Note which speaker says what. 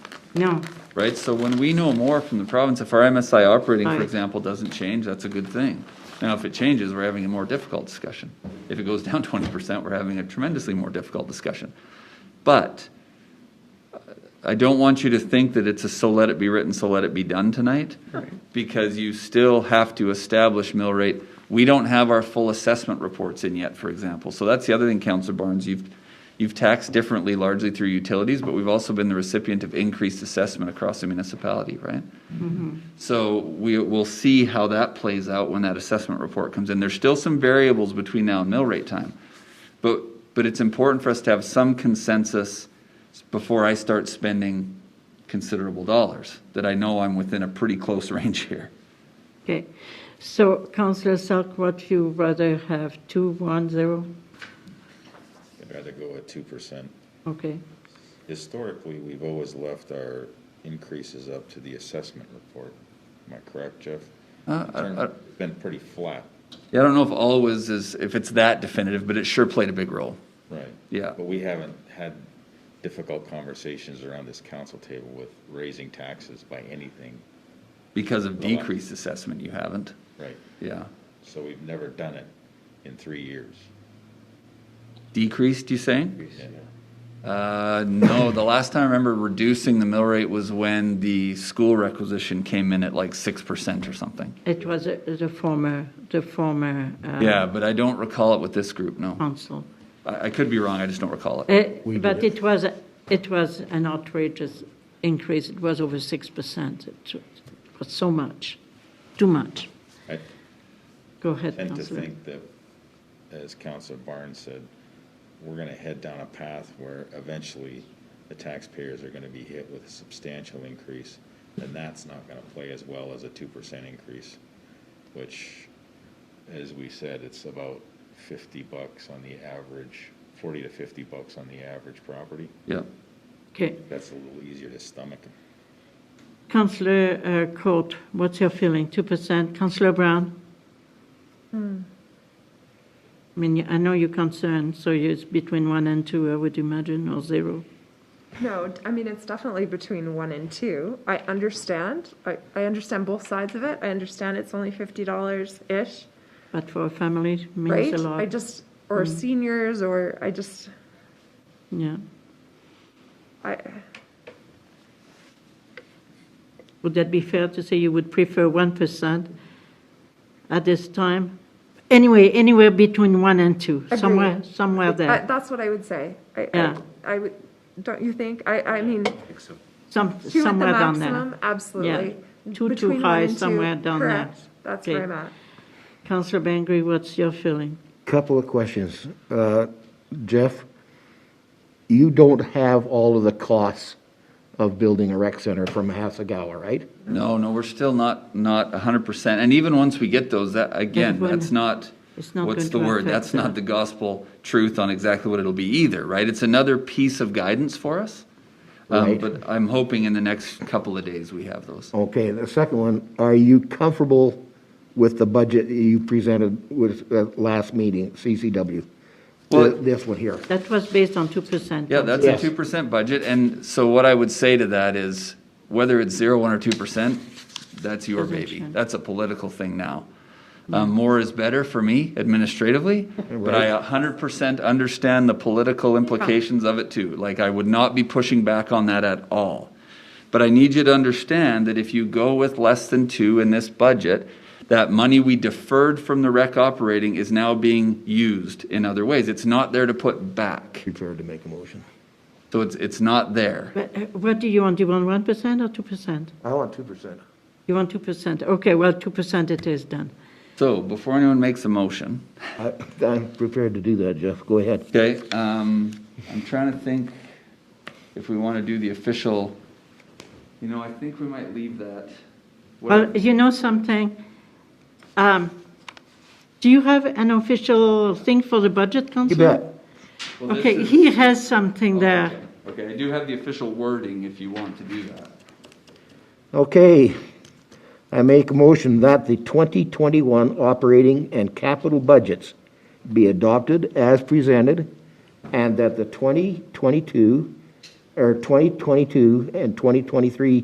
Speaker 1: No,
Speaker 2: right? So when we know more from the province, if our MSI operating, for
Speaker 1: Right.
Speaker 2: example, doesn't change, that's a good thing. Now, if it changes, we're having a more difficult discussion. If it goes down twenty percent, we're having a tremendously more difficult discussion. But uh, I don't want you to think that it's a so let it be written, so let it be done tonight, because you still have to establish mill rate. We don't have our full assessment reports in yet, for example. So that's the other thing, Counselor Barnes, you've, You've taxed differently largely through utilities, but we've also been the recipient of increased assessment across the municipality, right? So we will see how that plays out when that assessment report comes in. There's still some variables between now and mill rate time. But, but it's important for us to have some consensus before I start spending considerable dollars, that I know I'm within a pretty close range here.
Speaker 1: okay. So Councillor Salk, what you rather have, two, one, zero?
Speaker 3: I'd rather go at two percent.
Speaker 1: Okay,
Speaker 3: Historically, we've always left our increases up to the assessment report. Am I correct, Jeff?
Speaker 2: Uh, I- I-
Speaker 3: It's Been pretty flat.
Speaker 2: Yeah, I don't know if always is, if it's that definitive, but it sure played a big role.
Speaker 3: Right.
Speaker 2: Yeah.
Speaker 3: But we haven't had difficult conversations around this council table with raising taxes by anything.
Speaker 2: Because of
Speaker 3: Well, I-
Speaker 2: decreased assessment, you haven't,
Speaker 3: Right.
Speaker 2: yeah.
Speaker 3: So we've never done it in three years.
Speaker 2: Decreased, you saying?
Speaker 3: Yeah.
Speaker 2: Uh, no, the last time I remember reducing the mill rate was when the school requisition came in at like six percent or something.
Speaker 1: it was uh, the former, the former uh,
Speaker 2: Yeah, but I don't recall it with this group, no.
Speaker 1: council.
Speaker 2: I, I could be wrong, I just don't recall it.
Speaker 1: Uh, But it was, it was an outrageous increase, it was over 6%. It was so much, too much.
Speaker 3: I
Speaker 1: Go ahead,
Speaker 3: tend to
Speaker 1: Councillor.
Speaker 3: think that, as Counselor Barnes said, we're gonna head down a path where eventually the taxpayers are gonna be hit with a substantial increase, and that's not gonna play as well as a two percent increase, which, as we said, it's about fifty bucks on the average, forty to fifty bucks on the average property.
Speaker 2: Yeah.
Speaker 1: Okay,
Speaker 3: That's a little easier to stomach.
Speaker 1: Councillor uh, Court, what's your feeling, 2%? Councillor Brown?
Speaker 4: Hmm.
Speaker 1: I mean, you- I know you're concerned, so it's between 1 and 2, I would imagine, or 0.
Speaker 4: No, d- I mean, it's definitely between one and two. I understand. I, I understand both sides of it. I understand it's only $50-ish,
Speaker 1: But for a family, it means
Speaker 4: right?
Speaker 1: a
Speaker 4: I
Speaker 1: lot. Mm.
Speaker 4: just, or seniors, or I just,
Speaker 1: Yeah.
Speaker 4: I,
Speaker 1: Would that be fair to say you would prefer 1% at this time? Anyway, anywhere between 1 and 2, somewhere,
Speaker 4: Agreed.
Speaker 1: somewhere
Speaker 4: I-
Speaker 1: there.
Speaker 4: that's what I would say. I-
Speaker 1: Yeah.
Speaker 4: I, I would, don't you think? I, I mean,
Speaker 1: Some,
Speaker 4: two at the
Speaker 1: somewhere down there.
Speaker 4: maximum, absolutely.
Speaker 1: Yeah. Two too
Speaker 4: Between one
Speaker 1: high,
Speaker 4: and two,
Speaker 1: somewhere down there.
Speaker 4: correct. That's
Speaker 1: Okay.
Speaker 4: where I'm at.
Speaker 1: Councillor Bangry, what's your feeling?
Speaker 5: Couple of questions. Uh, Jeff, you don't have all of the costs of building a rec center from Hasagawa, right?
Speaker 2: No, no, we're still not, not hundred percent, and even once we get those, that, again,
Speaker 1: Everyone-
Speaker 2: that's not,
Speaker 1: It's not
Speaker 2: what's
Speaker 1: going
Speaker 2: the
Speaker 1: to
Speaker 2: word?
Speaker 1: affect
Speaker 2: That's
Speaker 1: the-
Speaker 2: not the gospel truth on exactly what it'll be either, right? It's another piece of guidance for us. Um,
Speaker 5: Right.
Speaker 2: but I'm hoping in the next couple of days we have those.
Speaker 5: Okay, the second one, are you comfortable with the budget that you presented with uh, last meeting, CCW?
Speaker 2: Well-
Speaker 5: Th- This one here.
Speaker 1: That was based on 2%.
Speaker 2: Yeah, that's a
Speaker 5: Yes.
Speaker 2: two percent budget, and so what I would say to that is, whether it's zero, one, or two percent, that's your
Speaker 1: Doesn't
Speaker 2: baby.
Speaker 1: change.
Speaker 2: That's a political thing now. Um, more is better for me administratively, but I a hundred percent understand the political implications of it too. Like, I would not be pushing back on that at all. But I need you to understand that if you go with less than two in this budget, that money we deferred from the rec operating is now being used in other ways. It's not there to put back.
Speaker 5: Prepared to make a motion.
Speaker 2: So it's, it's not there.
Speaker 1: But, uh, What do you want? Do you want 1% or 2%?
Speaker 5: I want 2%.
Speaker 1: You want 2%? Okay, well, 2% it is then.
Speaker 2: So before anyone makes a motion,
Speaker 5: I'm prepared to do that, Jeff. Go ahead.
Speaker 2: okay, um, I'm trying to think if we want to do the official, you know, I think we might leave that.
Speaker 1: Well, you know something? Um, Do you have an official thing for the budget,
Speaker 5: You
Speaker 1: Councillor?
Speaker 5: bet.
Speaker 2: Well, this
Speaker 1: Okay,
Speaker 2: is- oh,
Speaker 1: he has something there.
Speaker 2: Okay, I do have the official wording if you want to do that.
Speaker 5: Okay, I make a motion that the 2021 operating and capital budgets be adopted as presented, and that the 2022 or 2022 and 2023